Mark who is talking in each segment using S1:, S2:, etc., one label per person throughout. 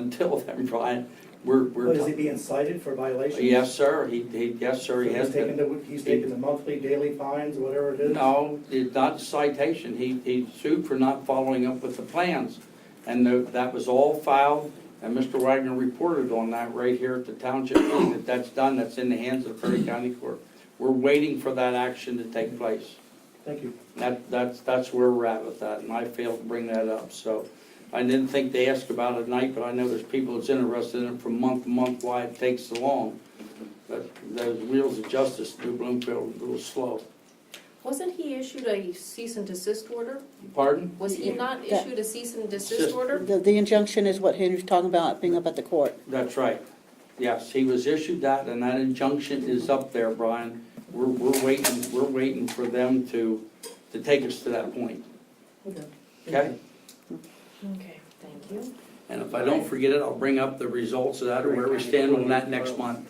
S1: Until then, Brian, we're, we're.
S2: What, is he being cited for violations?
S1: Yes, sir, he, he, yes, sir, he
S2: So
S1: has
S2: He's taking
S1: been.
S2: the, he's taking the monthly, daily fines, whatever it is?
S1: No, it's not citation, he, he sued for not following up with the plans. And tho- that was all filed, and Mr. Wagner reported on that right here at the township, meeting, that that's done, that's in the hands of Perry County Court. We're waiting for that action to take place.
S2: Thank you.
S1: That, that's, that's where we're at with that, and I failed to bring that up, so. I didn't think they asked about it tonight, but I know there's people that's interested in it from month to month, why it takes so long. But those wheels of justice do Bloomfield a little slow.
S3: Wasn't he issued a cease and desist order?
S1: Pardon?
S3: Was he not
S4: Yeah.
S3: issued a cease and
S1: Desist.
S3: desist order?
S4: The, the injunction is what Henry's talking about, being up at the court.
S1: That's right. Yes, he was issued that, and that injunction is up there, Brian. We're, we're waiting, we're waiting for them to, to take us to that point, okay?
S3: Okay, thank you.
S1: And if I don't forget it, I'll bring up the results of that or where we stand on that next month.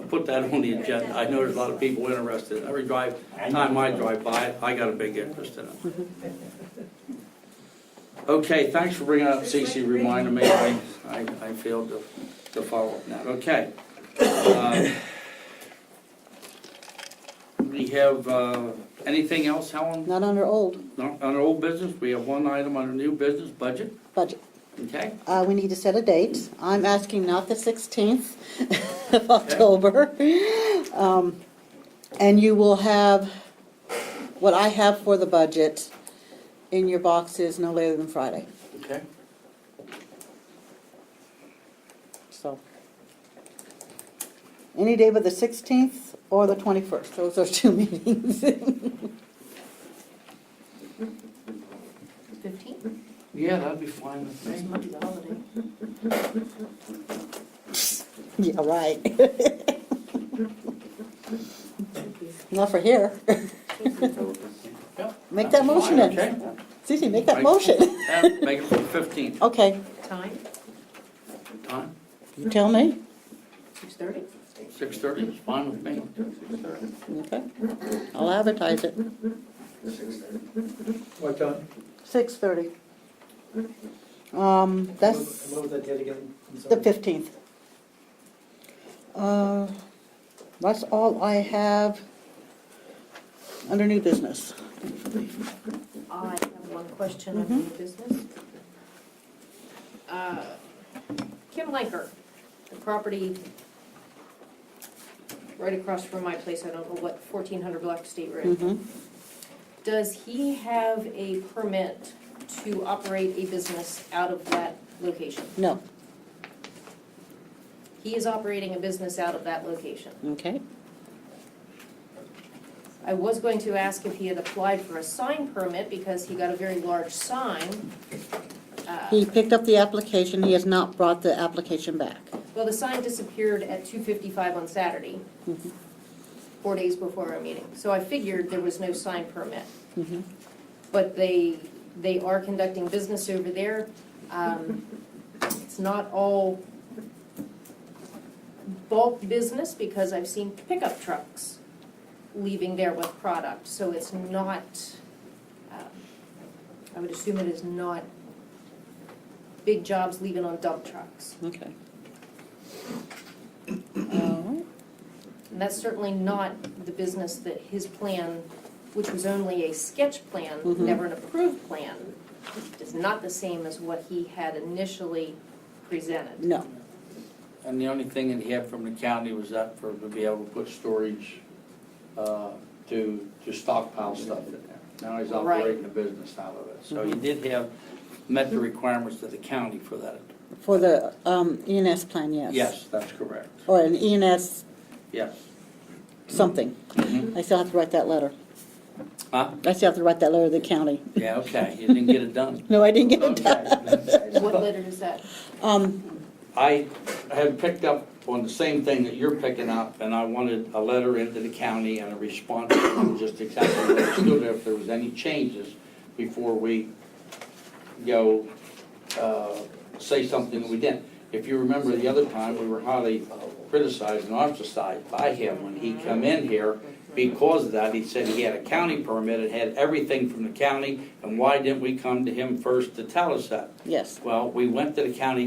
S1: I'll Put that on the agenda. I know there's a lot of people interested. Every drive, time I drive by, it, I got a big interest in it. Okay, thanks for bringing up CC reminding me. I, I I failed to, to follow up now. Okay. Uh, Um, We have, uh, anything else, Helen?
S4: Not under old
S1: No, On old business, we have one item under new business, budget,
S4: budget.
S1: okay?
S4: Uh, we need to set a date. I'm asking not the sixteenth of October. Um, and you will have, what I have for the budget in your boxes no later than Friday,
S1: Okay.
S4: so. Any day but the sixteenth or the twenty-first, those are two meetings.
S3: Fifteen?
S1: Yeah, that'd be fine with me.
S4: Yeah, right. Not for here. Make that motion then.
S1: Okay.
S4: Cece, make that motion.
S1: Yeah, Make it for the fifteenth.
S4: Okay,
S3: Time,
S1: Time,
S4: you tell me.
S3: six thirty?
S1: six thirty is fine with me.
S4: Okay, I'll advertise it.
S2: What time?
S4: Six thirty. Um, that's
S2: What was that date again? I'm
S4: the
S2: sorry.
S4: fifteenth. Uh, that's all I have under new business.
S3: I have one question on
S4: Mm-hmm.
S3: new business. Uh, Kim Lanker, the property right across from my place, I don't know what, fourteen hundred block State Road.
S4: Mm-hmm.
S3: Does he have a permit to operate a business out of that location?
S4: No,
S3: He is operating a business out of that location.
S4: okay,
S3: I was going to ask if he had applied for a sign permit because he got a very large sign. Uh,
S4: he picked up the application, he has not brought the application back.
S3: Well, the sign disappeared at two fifty-five on Saturday,
S4: Mhm.
S3: four days before our meeting. So I figured there was no sign permit.
S4: Mhm.
S3: But they, they are conducting business over there. Um, It's not all bulk business because I've seen pickup trucks leaving there with product. So it's not, um, I would assume it is not big jobs leaving on dump trucks.
S4: Okay. Alright.
S3: And that's certainly not the business that his plan, which was only a sketch plan,
S4: Mhm.
S3: never an approved plan, is not the same as what he had initially presented.
S4: No,
S1: And the only thing that he had from the county was that for, to be able to put storage, uh, to, to stockpile stuff in there. Now he's
S3: Right.
S1: operating a business out of it. So
S4: Mm-hmm.
S1: he did have, met the requirements of the county for that.
S4: for the um, ENS plan, yes.
S1: Yes, that's correct.
S4: Or an E ENS
S1: Yes.
S4: something.
S1: Mhm.
S4: I still have to write that letter.
S1: Huh?
S4: I still have to write that letter to the county.
S1: Yeah, okay, you didn't get it done.
S4: No, I didn't get it done.
S3: What
S1: Okay.
S3: letter is that?
S4: Um,
S1: I had picked up on the same thing that you're picking up, and I wanted a letter into the county and a response, from just exactly what it stood, if there was any changes before we go, uh, say something that we didn't. If you remember the other time, we were highly criticized and ostracized by him when he come in here. Because of that, he said he had a county permit, it had everything from the county, and why didn't we come to him first to tell us that?
S4: yes.
S1: Well, we went to the county